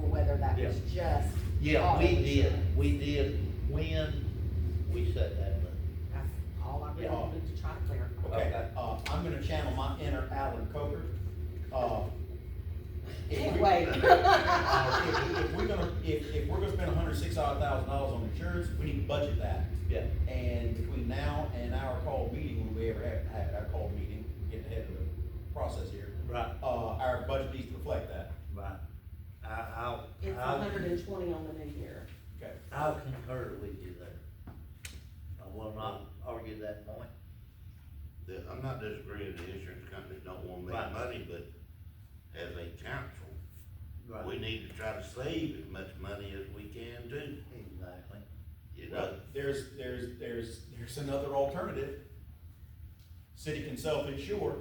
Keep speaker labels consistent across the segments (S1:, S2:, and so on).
S1: Oh,
S2: that was just.
S1: Yeah, we
S2: auto
S1: did,
S2: insurance.
S1: we did, when we set that up.
S2: That's all I really
S3: Yeah.
S2: wanted to try to clarify.
S3: Okay,
S1: Okay.
S3: uh, I'm gonna channel my inner Alan Coker. Uh, if we-
S2: Can't wait.
S3: Uh, If, if we're gonna, if, if we're gonna spend hundred and six odd thousand dollars on insurance, we need to budget that.
S1: Yeah.
S3: And between now and our call meeting, when we ever have, have our call meeting, getting ahead of the process here.
S1: Right.
S3: Uh, our budget needs to reflect that.
S1: Right. I, I'll,
S2: It's
S1: I'll-
S2: hundred and twenty on the new year.
S3: Okay.
S1: I'll concur with you there. I will not argue that point.
S4: The- I'm not disagreeing the insurance companies don't wanna
S1: Right.
S4: make money, but as a council, we need to try to save as much money as we can too,
S1: Exactly.
S4: you
S3: Well,
S4: know?
S3: there's, there's, there's, there's another alternative. City can self-insure,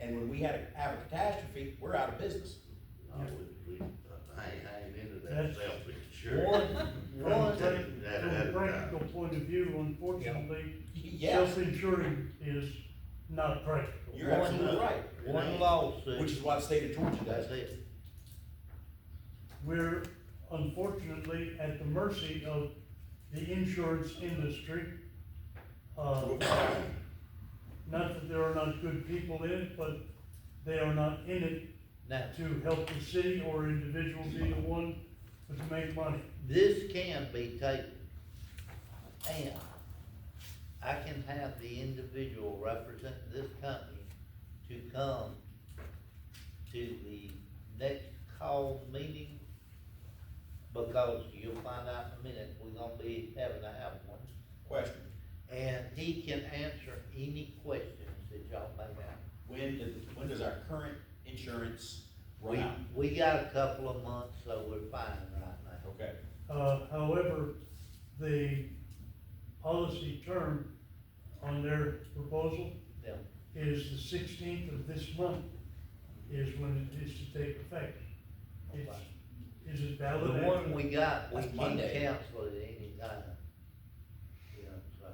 S3: and when we had, a- have a catastrophe, we're out of business.
S4: I would- we- uh, I ain't, I ain't into that
S5: That's-
S4: self-insurance.
S5: One,
S4: Right.
S5: one, thing
S4: That-
S5: from a
S4: that-
S5: practical point of view, unfortunately,
S3: Yeah,
S5: self-insuring is not practical.
S3: You're absolutely
S4: One-
S3: right.
S1: One lawsuit.
S3: which is why the state of Georgia does
S1: That's
S3: it.
S1: it.
S5: We're unfortunately at the mercy of the insurance industry. Uh, not that there are not good people in it, but they are not in it
S1: Now,
S5: to help the city or individuals either one, but to make money.
S1: this can be taken. And I can have the individual representing this company to come to the next call meeting. Because you'll find out in a minute, we're gonna be having to have one.
S3: Question,
S1: And he can answer any questions that y'all may have.
S3: when does, when does our current insurance run
S1: We,
S3: out?
S1: we got a couple of months, so we're fine right now.
S3: Okay,
S5: Uh, however, the policy term on their proposal
S1: Them
S5: is the sixteenth of this month is when it is to take effect.
S2: Oh,
S5: It's, is it
S1: The
S5: valid?
S1: one we got, we
S3: That's
S1: can
S3: Monday.
S1: cancel at any time. You know,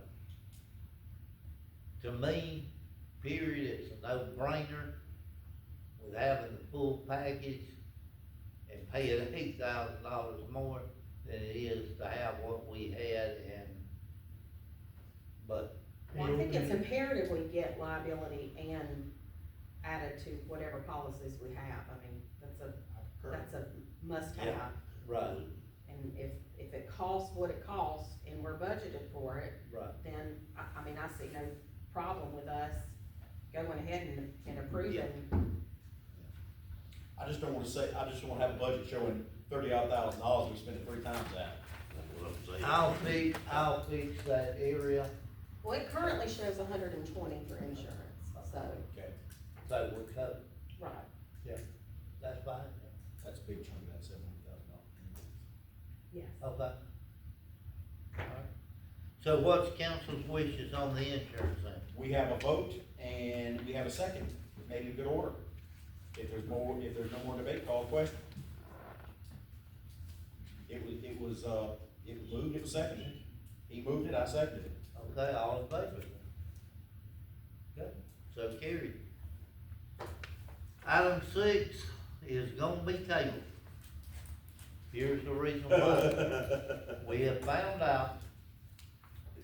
S1: so. To me, period, it's a no-brainer with having the full package and paying eight thousand dollars more than it is to have what we had and, but,
S2: Well, I think it's imperative we get liability and added to whatever policies we have. I mean, that's a,
S3: our current,
S2: that's a must have.
S1: Yeah. right,
S2: And if, if it costs what it costs and we're budgeted for it,
S1: right.
S2: then, I, I mean, I see no problem with us going ahead and, and approving.
S3: I just don't wanna say, I just wanna have a budget showing thirty odd thousand dollars, we spend it three times that.
S4: That's what I'm saying.
S1: I'll fix, I'll fix that area,
S2: Well, it currently shows hundred and twenty for insurance, so,
S3: Okay,
S1: so we're covered,
S2: right.
S1: that's fine,
S3: that's a big chunk of that seven hundred thousand dollars.
S2: Yes.
S1: okay? Alright. So what's council's wishes on the insurance thing?
S3: We have a vote and we have a second, made in good order. If there's more, if there's no more debate, call the question. It was, it was, uh, it was moved, it was seconded. He moved it, I seconded it.
S1: Okay, all in favor? Okay, so carried. Item six is gonna be tabled. Here's the reason why. We have found out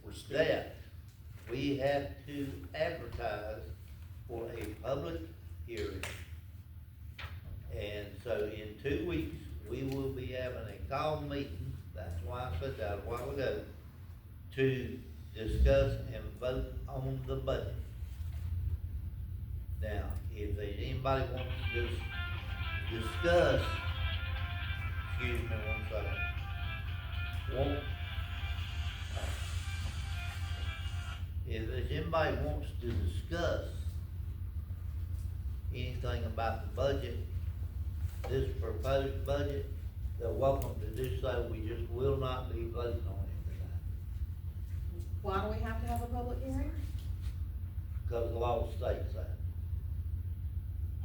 S3: We're still,
S1: that we have to advertise for a public hearing. And so in two weeks, we will be having a call meeting, that's why I said that a while ago, to discuss and vote on the budget. Now, if there's anybody wants to dis- discuss, excuse me one second, want, if there's anybody wants to discuss anything about the budget, this proposed budget, they're welcome to do so, we just will not be voting on it tonight,
S2: Why do we have to have a public hearing?
S1: because the law states that.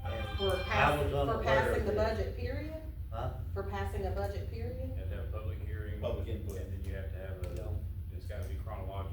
S1: And
S2: For
S1: I
S2: passing,
S1: was
S2: for
S1: unaware of
S2: passing the
S1: it.
S2: budget period?
S1: Huh?
S2: For passing a budget period?
S6: You have to have a public hearing.
S3: Public input.
S6: And then you have to have a,
S1: Yeah.
S6: it's gotta be chronological.